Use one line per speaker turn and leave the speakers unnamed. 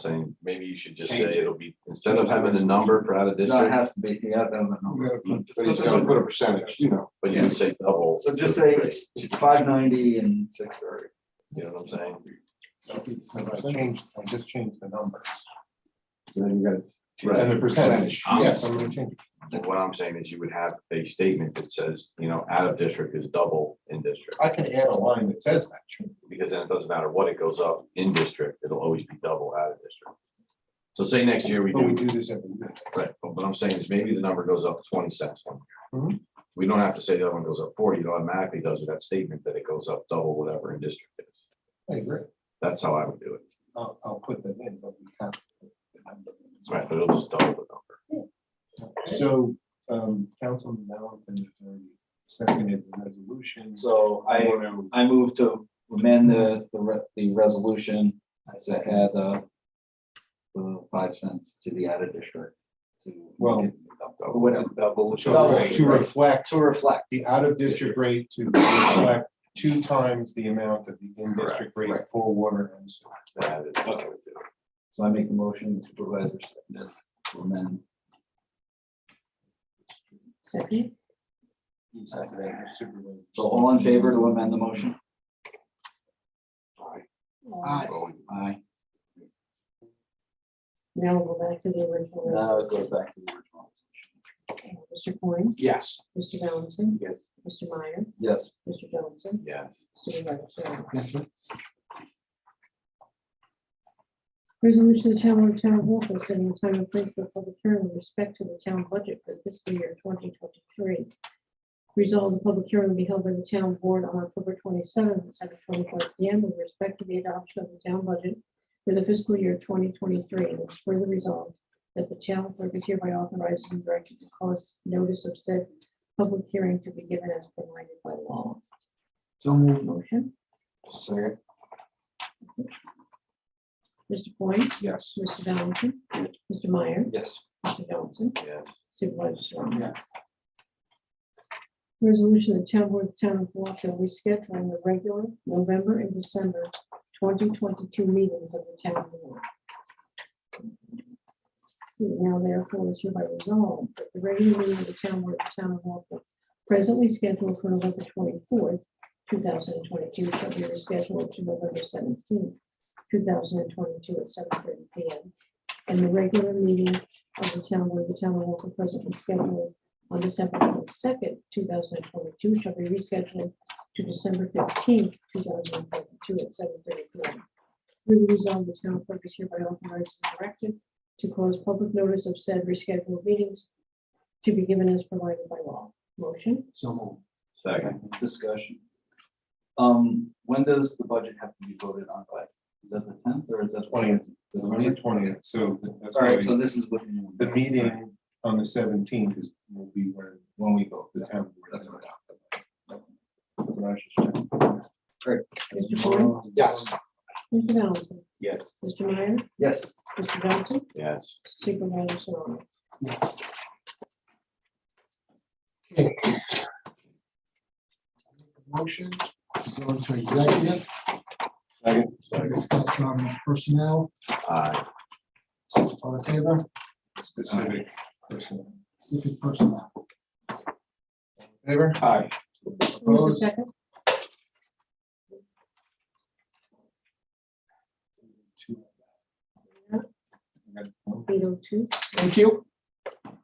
saying, maybe you should just say
Change it.
it'll be, instead of having a number for out of
No, it
district,
has to be, yeah, that was a number.
but he's
gonna
gonna
put a percentage, you know.
but you say double.
So just say five ninety and six thirty.
You know what I'm saying?
Change, I just changed the number.
Then you got.
Right.
And the percentage,
Um,
yes, I'm gonna change.
And what I'm saying is you would have a statement that says, you know, out of district is double in district.
I can add a line that says that. shouldn't
Because then it doesn't matter what it goes up in district, it'll always be double out of district. So say next year we
it? But we
do,
do this every year.
right, but what I'm saying is maybe the number goes up twenty cents one year.
Mhm.
We don't have to say the other one goes up forty, it automatically does with that statement that it goes up double whatever in district is.
I agree.
That's how I would do it.
I'll, I'll put that in, but we have. to-
Right, but it'll just double the number.
So, um, Councilman Valentin has already seconded the resolution.
So I,
Wanna-
I move to amend the, the, re- the resolution. I said add the, the five cents to the added district. to
Well,
get double- whatever, double.
To to reflect
To reflect.
the out-of-district rate to reflect two times the amount of the in-district rate
right.
for water and sewer.
That is what I would do.
So I make the motion supervisor seconded to amend.
Second.
So all in favor to amend the motion?
Uh,
Aye.
Now we'll go back to the original. uh,
Now it goes back to the original.
Mr. Coyne,
Yes.
Mr. Valentin.
Yes.
Mr. Meyer,
Yes.
Mr. Johnson,
Yes.
Supervisor Serrano.
Yes, sir.
Resolution to the Town Board Town of Waltham setting the time and place for public hearing with respect to the town budget for fiscal year twenty twenty-three. Resolved, the public hearing will be held by the town board on October twenty-seventh at seven twenty-five P M with respect to the adoption of the town budget for the fiscal year twenty twenty-three. And it's further resolved that the town clerk is hereby authorized and directed to cause notice of said public hearing to be given as provided by law.
So moved.
Motion,
Second,
Mr. Coyne,
yes.
Mr. Valentin, Mr. Meyer,
Yes.
Mr. Johnson,
Yes.
Supervisor Serrano.
Yes.
Resolution of Town Board of Town of Waltham rescheduling the regular November and December twenty twenty-two meetings of the town board. See, now therefore is hereby resolved that the regular meeting of the town board of the town of Waltham presently scheduled for November twenty-fourth, two thousand and twenty-two, shall be rescheduled to November seventeenth, two thousand and twenty-two at seven thirty P M. And the regular meeting of the town board of the town of Waltham presently scheduled on December twenty-second, two thousand and twenty-two, shall be rescheduled to December fifteenth, two thousand and twenty-two, at seven thirty P M. We resolve the town clerk is hereby authorized and directed to cause public notice of said rescheduled meetings to be given as provided by law. Motion,
So moved.
Second,
Discussion. Um, when does the budget have to be voted on by? Is that the tenth or is that? the
Twentieth.
7th? The
November
20th?
twentieth, so that's
All
why
right, so
we-
this is within.
the meeting on the seventeenth is, will be when, when we go to the town. board.
That's what
That's what I should say.
Mr. Cohen,
Yes.
Mr. Valentin.
Yes.
Mr. Meyer,
Yes.
Mr. Johnson,
yes.
Supervisor Serrano.
Yes.
Motion, to go into executive. To discuss um, personnel,
Aye.
all in favor,
Specific person.
specific personnel.
Favor? Aye.
Who was
Opposed?
the second?
Two.
Eight oh two. oh
Thank you.